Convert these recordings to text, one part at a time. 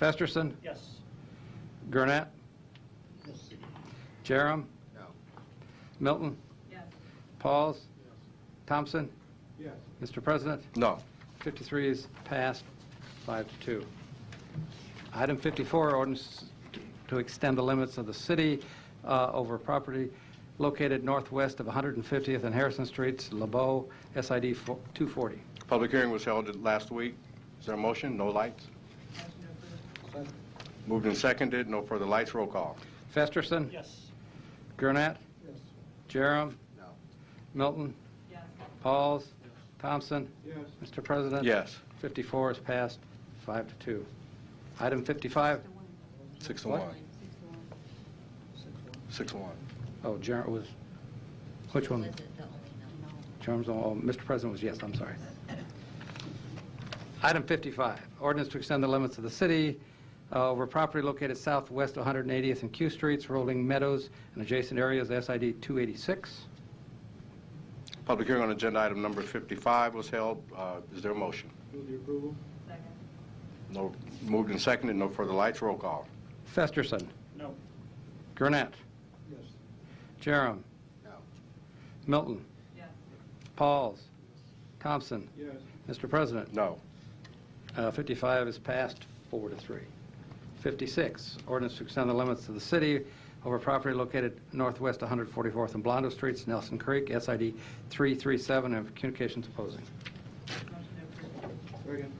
Festerson, Yes. Gurnett, Yes. Jerem, No. Milton, yes, Pauls, Thompson. Yes. Mr. President, No. 53 is passed, five to two. Item 54, ordinance to extend the limits of the city uh, over property located northwest of 150th and Harrison Streets, LeBeau, SID fo- 240. Public hearing was held last week. Is there a motion? No lights? motion approved, Moved and seconded, no further lights, roll call. Festerson. Yes. Gurnett. Yes. Jerem. No. Milton. yes, Pauls. Thompson. Yes. Mr. President. Yes, 54 is passed, five to two. Item 55, the one, six to What? one. six to one. Six to one. oh, Jerem was, which one? Terms on, oh, Mr. President was yes, I'm sorry. Item 55, ordinance to extend the limits of the city uh, over property located southwest of 180th and Q Streets, Rolling Meadows, and adjacent areas, SID 286. Public hearing on agenda item number 55 was held. Uh, Is there a motion? Move the approval? second, No, moved and seconded, no further lights, roll call. Festerson. No. Gurnett. Yes. Jerem. No. Milton. yes, Pauls. Thompson. Yes. Mr. President. No. Uh, 55 is passed, four to three. 56, ordinance to extend the limits of the city over property located northwest 144th and Blondo Streets, Nelson Creek, SID 337, and communications opposing. motion approved, Second?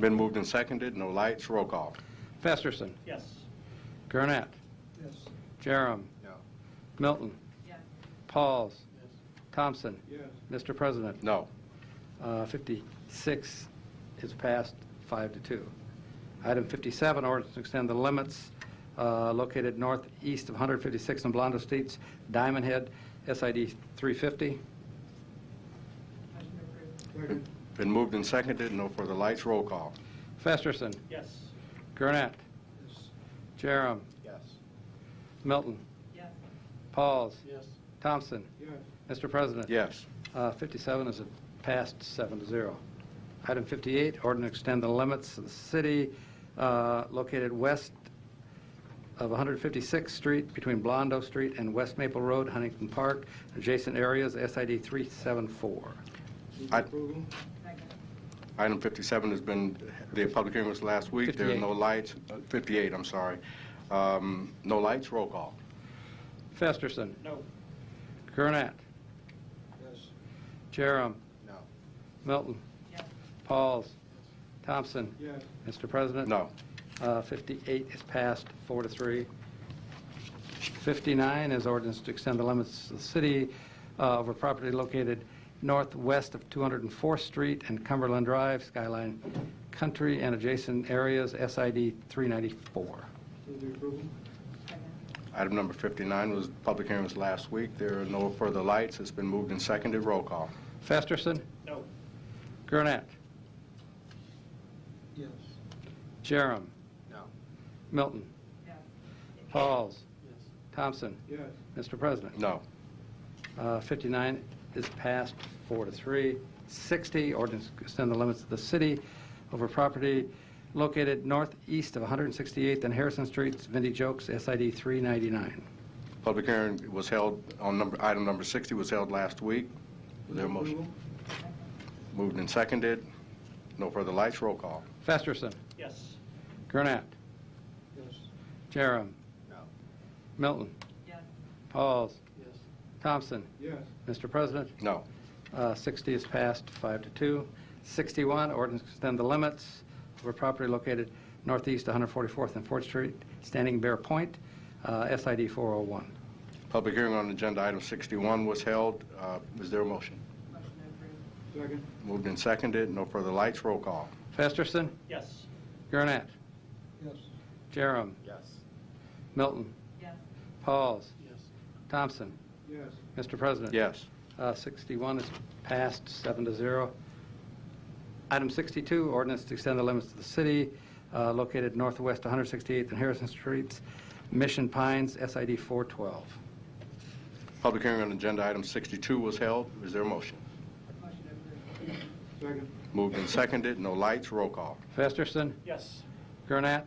Been moved and seconded, no lights, roll call. Festerson, Yes. Gurnett, Yes. Jerem. No. Milton, yes, Pauls, Yes. Thompson. Yes. Mr. President, No. uh, 56 is passed, five to two. Item 57, ordinance to extend the limits uh, located northeast of 156th and Blondo Streets, Diamond Head, SID 350. motion approved, Second? Been moved and seconded, no further lights, roll call. Festerson, Yes. Gurnett, Yes. Jerem, Yes. Milton, yes, Pauls, Yes. Thompson. Yes. Mr. President. Yes. Uh, 57 is passed seven to zero. Item 58, ordinance to extend the limits of the city uh, located west of 156th Street between Blondo Street and West Maple Road, Huntington Park, adjacent areas, SID 374. Move I- the approval? second, Item 57 has been, the public hearing was last week. There are no 58. lights, uh, 58, I'm sorry. Um, No lights, roll call. Festerson, No. Gurnett, Yes. Jerem, No. Milton, yes, Pauls, Thompson. Yes. Mr. President. No. Uh, 58 is passed, four to three. 59 is ordinance to extend the limits of the city uh, over property located northwest of 204th Street and Cumberland Drive, Skyline Country, and adjacent areas, SID 394. Move the approval? second, Item number 59 was, public hearing was last week. There are no further lights. It's been moved and seconded. Roll call. Festerson, No. Gurnett, Yes. Jerem, No. Milton, yes, Pauls, Yes. Thompson. Yes. Mr. President. No. Uh, 59 is passed, four to three. 60, ordinance to extend the limits of the city over property located northeast of 168th and Harrison Streets, Vindy Jokes, SID 399. Public hearing was held on number, item number 60 was held last week. Was there a motion? Approval? Moved and seconded. No further lights. Roll call. Festerson, Yes. Gurnett, Yes. Jerem, No. Milton, yes, Pauls, Yes. Thompson. Yes. Mr. President, No. uh, 60 is passed, five to two. 61, ordinance to extend the limits over property located northeast of 144th and Fort Street, Standing Bear Point, uh, SID 401. Public hearing on agenda item 61 was held. Uh, Is there a motion? motion approved, Second? Moved and seconded. No further lights. Roll call. Festerson, Yes. Gurnett, Yes. Jerem, Yes. Milton, yes, Pauls, Yes. Thompson. Yes. Mr. President. Yes. Uh, 61 is passed, seven to zero. Item 62, ordinance to extend the limits of the city uh, located northwest 168th and Harrison Streets, Mission Pines, SID 412. Public hearing on agenda item 62 was held. Is there a motion? motion approved, Second? Moved and seconded, no lights, roll call. Festerson, Yes. Gurnett,